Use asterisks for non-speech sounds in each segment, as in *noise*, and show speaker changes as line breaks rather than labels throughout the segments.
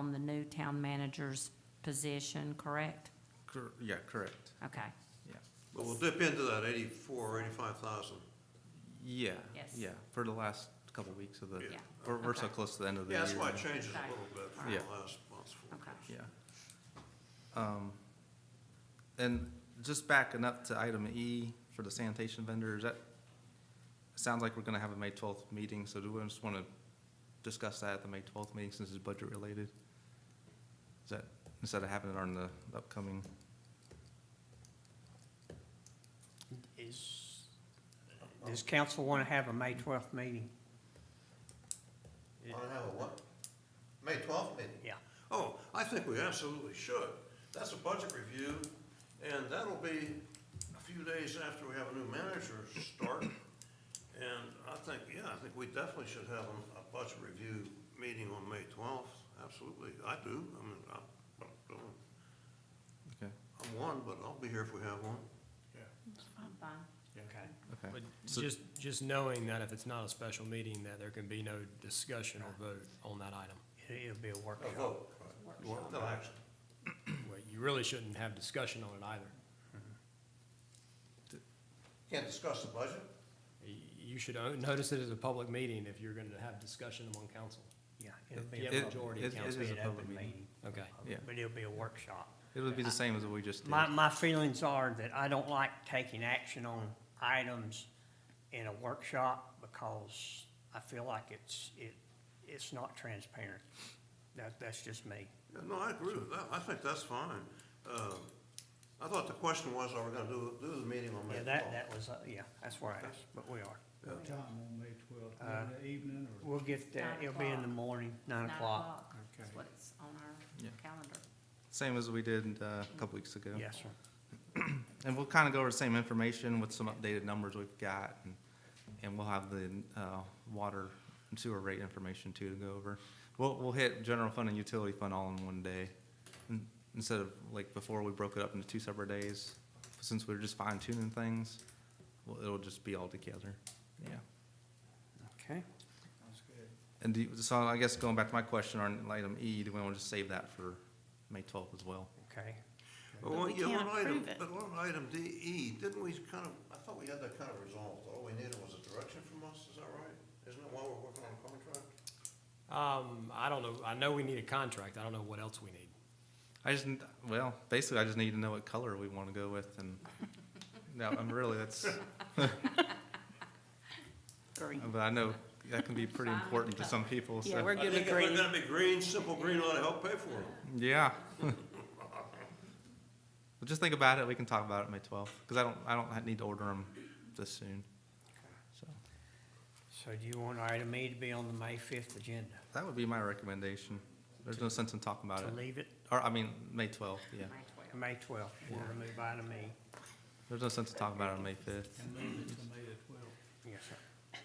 on the new town manager's position, correct?
Cor- Yeah, correct,
Okay,
yeah.
But we'll dip into that eighty-four, or eighty-five thousand.
Yeah,
Yes.
yeah, for the last couple of weeks of the,
Yeah.
we're, we're so
Okay.
close to the end of the
Yeah,
year.
that's why it
now.
changes a
Okay.
little bit from
Yeah.
the last month's
okay.
forecast.
Yeah. Um, and just backing up to item E for the sanitation vendors, that, it sounds like we're gonna have a May twelfth meeting, so do we just wanna discuss that at the May twelfth meeting since it's budget related? Is that, instead of having it on the upcoming,
Is, does council want to have a May twelfth meeting?
I have a what? May twelfth meeting?
Yeah,
Oh, I think we absolutely should. That's a budget review, and that'll be a few days after we have a new manager start. And I think, yeah, I think we definitely should have a- a budget review meeting on May twelfth, absolutely. I do, I mean, I, I'm-
okay,
I'm one, but I'll be here if we have one.
okay.
okay.
But
So-
just, just knowing that if it's not a special meeting, that there can be no discussion or vote on that item.
It- It'll be a
A
workshop.
vote. Workshop. No action.
Well, You really shouldn't have discussion on it either.
Can't discuss the budget?
Y- You should o- notice it as a public meeting if you're gonna have discussion among council.
Yeah, it'll be
Yeah,
a public,
majority
It- it-
it'll
It
council
is
be
a
an
public
open
meeting.
meeting, Um,
Okay.
Yeah.
but it'll be a workshop.
It would be the same as what we just did.
My, my feelings are that I don't like taking action on items in a workshop because I feel like it's, it, it's not transparent. That, that's just me.
Yeah, no, I agree with that. I think that's fine. Uh, I thought the question was, are we gonna do, do the meeting on May
Yeah,
twelfth?
that, that was, uh, yeah, that's where I was, but we are.
What time on May twelfth,
Uh,
in the evening or?
We'll get that,
Nine
it'll be in the
o'clock.
morning, nine o'clock.
That's what it's on our
Yeah.
calendar.
Same as we did, uh, a couple weeks ago.
Yes, sir.
And we'll kind of go over the same information with some updated numbers we've got, and, and we'll have the, uh, water and sewer rate information too to go over. We'll, we'll hit general fund and utility fund all in one day, in- instead of, like, before we broke it up into two separate days. Since we're just fine tuning things, well, it'll just be all together, yeah.
Okay.
That's good.
And do, you- so I guess going back to my question on item E, do we want to just save that for May twelfth as well?
Okay.
But we can't approve it. But on item D E, didn't we kind of, I thought we had that kind of resolved. All we needed was a direction from us, is that right? Isn't that why we're working on a contract?
Um, I don't know, I know we need a contract, I don't know what else we need.
I just, n- well, basically, I just need to know what color we want to go
*laughs*
with, and, no, I'm really, that's. But I know that can be pretty
Fine.
important to some people,
Yeah,
so,
we're good with
I think if
green.
we're gonna be green, simple green ought to help pay for them.
yeah. *laughs* But just think about it, we can talk about it May twelfth, because I don't, I don't need to order them this soon, so.
So do you want item E to be on the May fifth agenda?
That would be my recommendation. There's no sense in talking about
To
it,
leave it
or, I mean, May twelfth, yeah.
May 12th.
to May twelfth, you want to move item E?
There's no sense in talking about it on May fifth.
And move it to May the twelfth.
Yes, sir.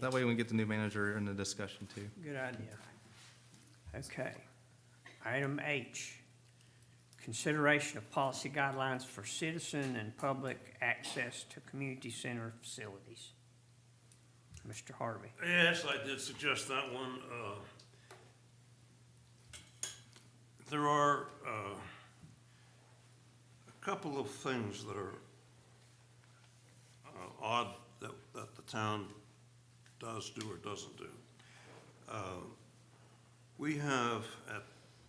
That way we can get the new manager in the discussion too.
Good idea. Okay. Item H, consideration of policy guidelines for citizen and public access to community center facilities. Mr. Harvey.
Yes, I did suggest that one. uh, There are uh, a couple of things that are uh, odd that, that the town does do or doesn't do. Uh, We have at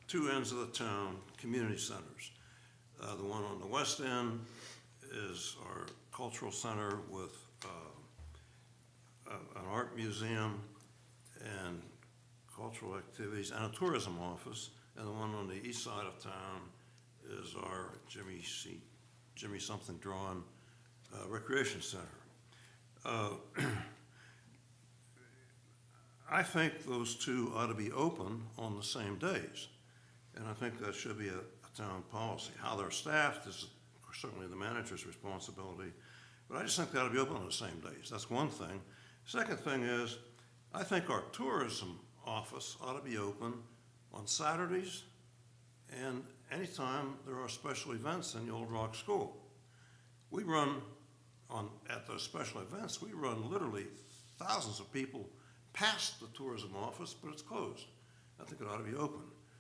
two ends of the town, community centers. Uh, The one on the west end is our cultural center with uh, a- an art museum and cultural activities and a tourism office. And the one on the east side of town is our Jimmy C, Jimmy something drawn uh, recreation center. Uh, I think those two ought to be open on the same days. And I think that should be a, a town policy. How they're staffed is certainly the manager's responsibility. But I just think they ought to be open on the same days. That's one thing. Second thing is, I think our tourism office ought to be open on Saturdays and anytime there are special events in the Old Rock School. We run on, at those special events, we run literally thousands of people past the tourism office, but it's closed. I think it ought to be open.